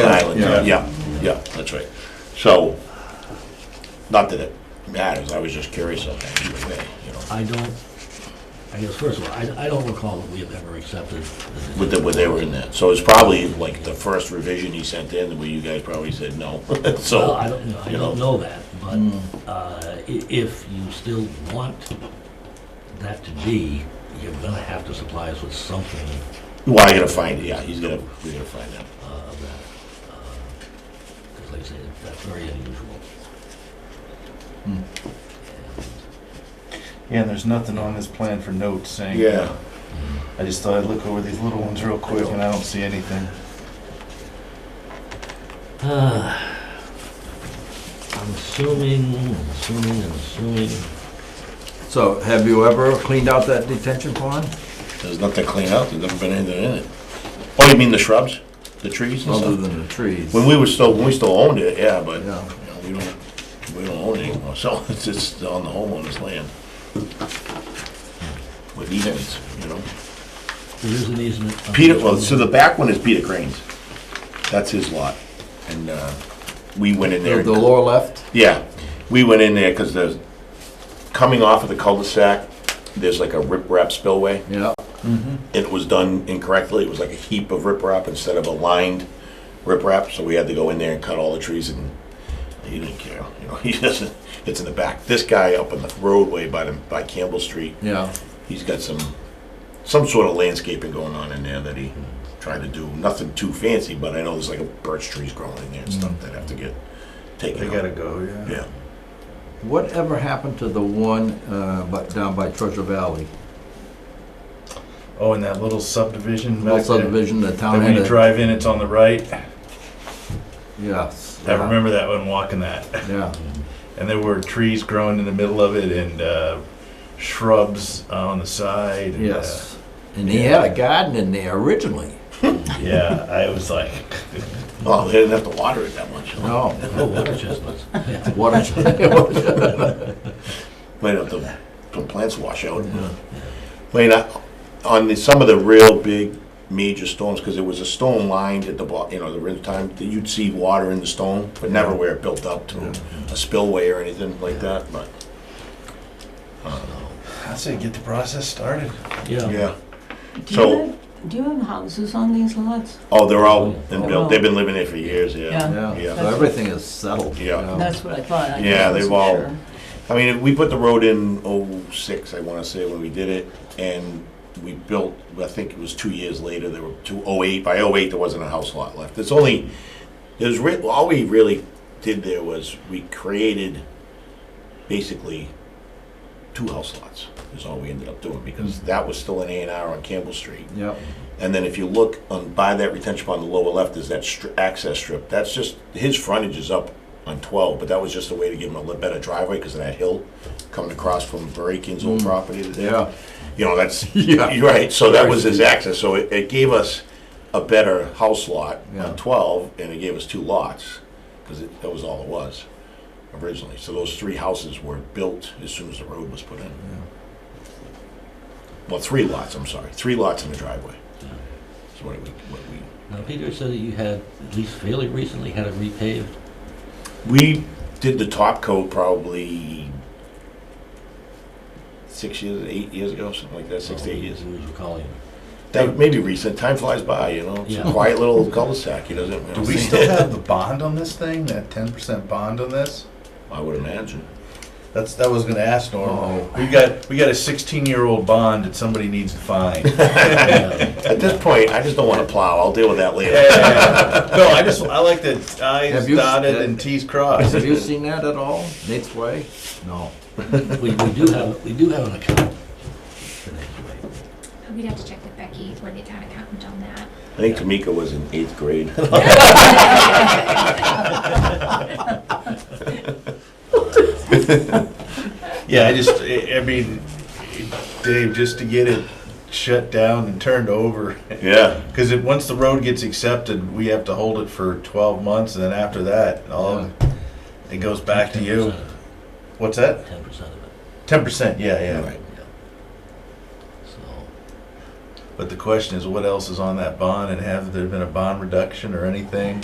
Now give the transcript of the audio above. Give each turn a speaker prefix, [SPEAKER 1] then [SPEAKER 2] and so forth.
[SPEAKER 1] Yeah.
[SPEAKER 2] Yeah, yeah, that's right. So, not that it matters, I was just curious on that either way, you know,
[SPEAKER 1] I don't, I guess, first of all, I, I don't recall that we have ever accepted. this.
[SPEAKER 2] with the, when they were in there. So it's probably like the first revision he sent in, where you guys probably said no, Hmm.
[SPEAKER 1] Well,
[SPEAKER 2] so.
[SPEAKER 1] I don't, know. I
[SPEAKER 2] you
[SPEAKER 1] don't know that, but, uh, i- if you still want that to be, you're gonna have to supply us with something
[SPEAKER 2] Well, I gotta find, yeah, he's gonna, we gotta find out.
[SPEAKER 1] uh, of that. Because like I say, that's very unusual.
[SPEAKER 2] Hmm.
[SPEAKER 3] Yeah, and there's nothing on this plan for notes saying.
[SPEAKER 2] Yeah,
[SPEAKER 3] I just thought I'd look over these little ones real quick and I don't see anything.
[SPEAKER 1] Uh, I'm assuming, I'm assuming, I'm assuming,
[SPEAKER 4] So have you ever cleaned out that detention pond?
[SPEAKER 2] there's nothing to clean out, there's never been anything in it. Oh, you mean the shrubs, the trees and
[SPEAKER 4] Other
[SPEAKER 2] stuff?
[SPEAKER 4] than the trees?
[SPEAKER 2] When we were still, when we still owned it, yeah, but, you
[SPEAKER 4] Yeah.
[SPEAKER 2] know, we don't, we don't own it anymore, so it's just on the homeowner's land. With easements, you know?
[SPEAKER 1] there is an easement. on
[SPEAKER 2] Peter,
[SPEAKER 1] this
[SPEAKER 2] well,
[SPEAKER 1] one.
[SPEAKER 2] so the back one is Peter Crane's. That's his lot. And uh, we went in
[SPEAKER 4] The
[SPEAKER 2] there.
[SPEAKER 4] the lower left?
[SPEAKER 2] Yeah, we went in there because there's, coming off of the cul-de-sac, there's like a riprap spillway.
[SPEAKER 4] Yeah.
[SPEAKER 2] It was done incorrectly. It was like a heap of riprap instead of a lined riprap. So we had to go in there and cut all the trees and he didn't care. You know, he doesn't, it's in the back. This guy up on the roadway by the, by Campbell Street,
[SPEAKER 4] Yeah.
[SPEAKER 2] he's got some, some sort of landscaping going on in there that he tried to do. Nothing too fancy, but I know there's like a birch trees growing in there and stuff that have to get taken out.
[SPEAKER 3] go,
[SPEAKER 2] Yeah.
[SPEAKER 4] Whatever happened to the one, uh, but down by Treasure Valley?
[SPEAKER 3] Oh, and that little subdivision
[SPEAKER 4] Little
[SPEAKER 3] back there.
[SPEAKER 4] subdivision, the town
[SPEAKER 3] Then when
[SPEAKER 4] had
[SPEAKER 3] you
[SPEAKER 4] a,
[SPEAKER 3] drive in, it's on the right.
[SPEAKER 4] yes.
[SPEAKER 3] I remember that when walking that.
[SPEAKER 4] Yeah,
[SPEAKER 3] And there were trees growing in the middle of it and uh, shrubs on the side. and, uh,
[SPEAKER 4] yes. And he had a garden in there originally.
[SPEAKER 3] Yeah, I was like,
[SPEAKER 2] Oh, they didn't have to water it that much. huh?
[SPEAKER 4] No,
[SPEAKER 1] Oh, water chestnuts. Yeah.
[SPEAKER 4] what a,
[SPEAKER 2] Might have to, some plants wash out. Wait, I- on the, some of the real big major storms, because there was a stone lined at the, bo- you know, the rim time, that you'd see water in the stone, but never where it built up to a spillway or anything like that, but,
[SPEAKER 3] I say, get the process started.
[SPEAKER 1] Yeah.
[SPEAKER 2] yeah.
[SPEAKER 5] Do
[SPEAKER 2] So-
[SPEAKER 5] you have, do you have houses on these lots?
[SPEAKER 2] Oh, they're all been built, they've been living there for years, yeah.
[SPEAKER 5] Yeah.
[SPEAKER 4] yeah,
[SPEAKER 2] Yeah.
[SPEAKER 4] so everything is settled. you
[SPEAKER 2] Yeah.
[SPEAKER 4] know.
[SPEAKER 5] That's what I thought. I
[SPEAKER 2] Oh. Yeah,
[SPEAKER 5] wasn't
[SPEAKER 2] they've all-
[SPEAKER 5] sure.
[SPEAKER 2] I mean, if we put the road in oh-six, I wanna say, when we did it, and we built, I think it was two years later, there were two, oh-eight, by oh-eight, there wasn't a house lot left. It's only, there's re, all we really did there was, we created basically two house lots, is all we ended up doing, because that was still an A and R on Campbell Street.
[SPEAKER 4] Yep,
[SPEAKER 2] And then if you look on, by that retention pond, on the lower left is that str- access strip. That's just, his frontage is up on 12, but that was just a way to give him a little better driveway because of that hill coming across from Barakin's old property to there.
[SPEAKER 4] Mm. yeah,
[SPEAKER 2] You know, that's,
[SPEAKER 4] Yeah.
[SPEAKER 2] you're right, so that was his access. So it, it gave us a better house lot
[SPEAKER 4] Yeah.
[SPEAKER 2] on 12, and it gave us two lots because that was all it was originally. So those three houses were built as soon as the road was put in. Well, three lots, I'm sorry, three lots in the driveway. That's what we, what we,
[SPEAKER 1] Now, Peter said that you had, at least fairly recently, had it repaved.
[SPEAKER 2] we did the top coat probably six years, eight years ago, something like that, six to
[SPEAKER 3] Oh.
[SPEAKER 2] eight years.
[SPEAKER 1] Who was recalling it?
[SPEAKER 2] That may be recent, time flies by, you know, it's a
[SPEAKER 1] Yeah.
[SPEAKER 2] quiet little cul-de-sac, he doesn't. you
[SPEAKER 3] Do
[SPEAKER 2] know,
[SPEAKER 3] we still have the bond on this thing? That 10% bond on this?
[SPEAKER 2] I would imagine.
[SPEAKER 3] That's that was gonna ask Norm.
[SPEAKER 4] Oh.
[SPEAKER 3] We got we got a 16 year old bond that somebody needs to find.
[SPEAKER 1] Yeah.
[SPEAKER 2] At this point, I just don't want to plow, I'll deal with that later.
[SPEAKER 3] Yeah. No, I just I like that I's
[SPEAKER 4] Have you- uh,
[SPEAKER 3] dotted and T's crossed.
[SPEAKER 4] have you seen that at all, Nate's Way? No.
[SPEAKER 1] We, we do have, we do have an account. for Nate's Way.
[SPEAKER 6] We'd have to check with Becky or the town accountant on that.
[SPEAKER 2] I think Tamika was in eighth grade.
[SPEAKER 3] Yeah, I just I, I mean, Dave, just to get it shut down and turned over,
[SPEAKER 2] Yeah,
[SPEAKER 3] because it once the road gets accepted, we have to hold it for 12 months, and then after that, all it goes back to you. What's that?
[SPEAKER 1] Ten percent of it,
[SPEAKER 3] Ten percent. Yeah, yeah.
[SPEAKER 2] Right.
[SPEAKER 1] so.
[SPEAKER 3] But the question is, what else is on that bond, and have there been a bond reduction or anything?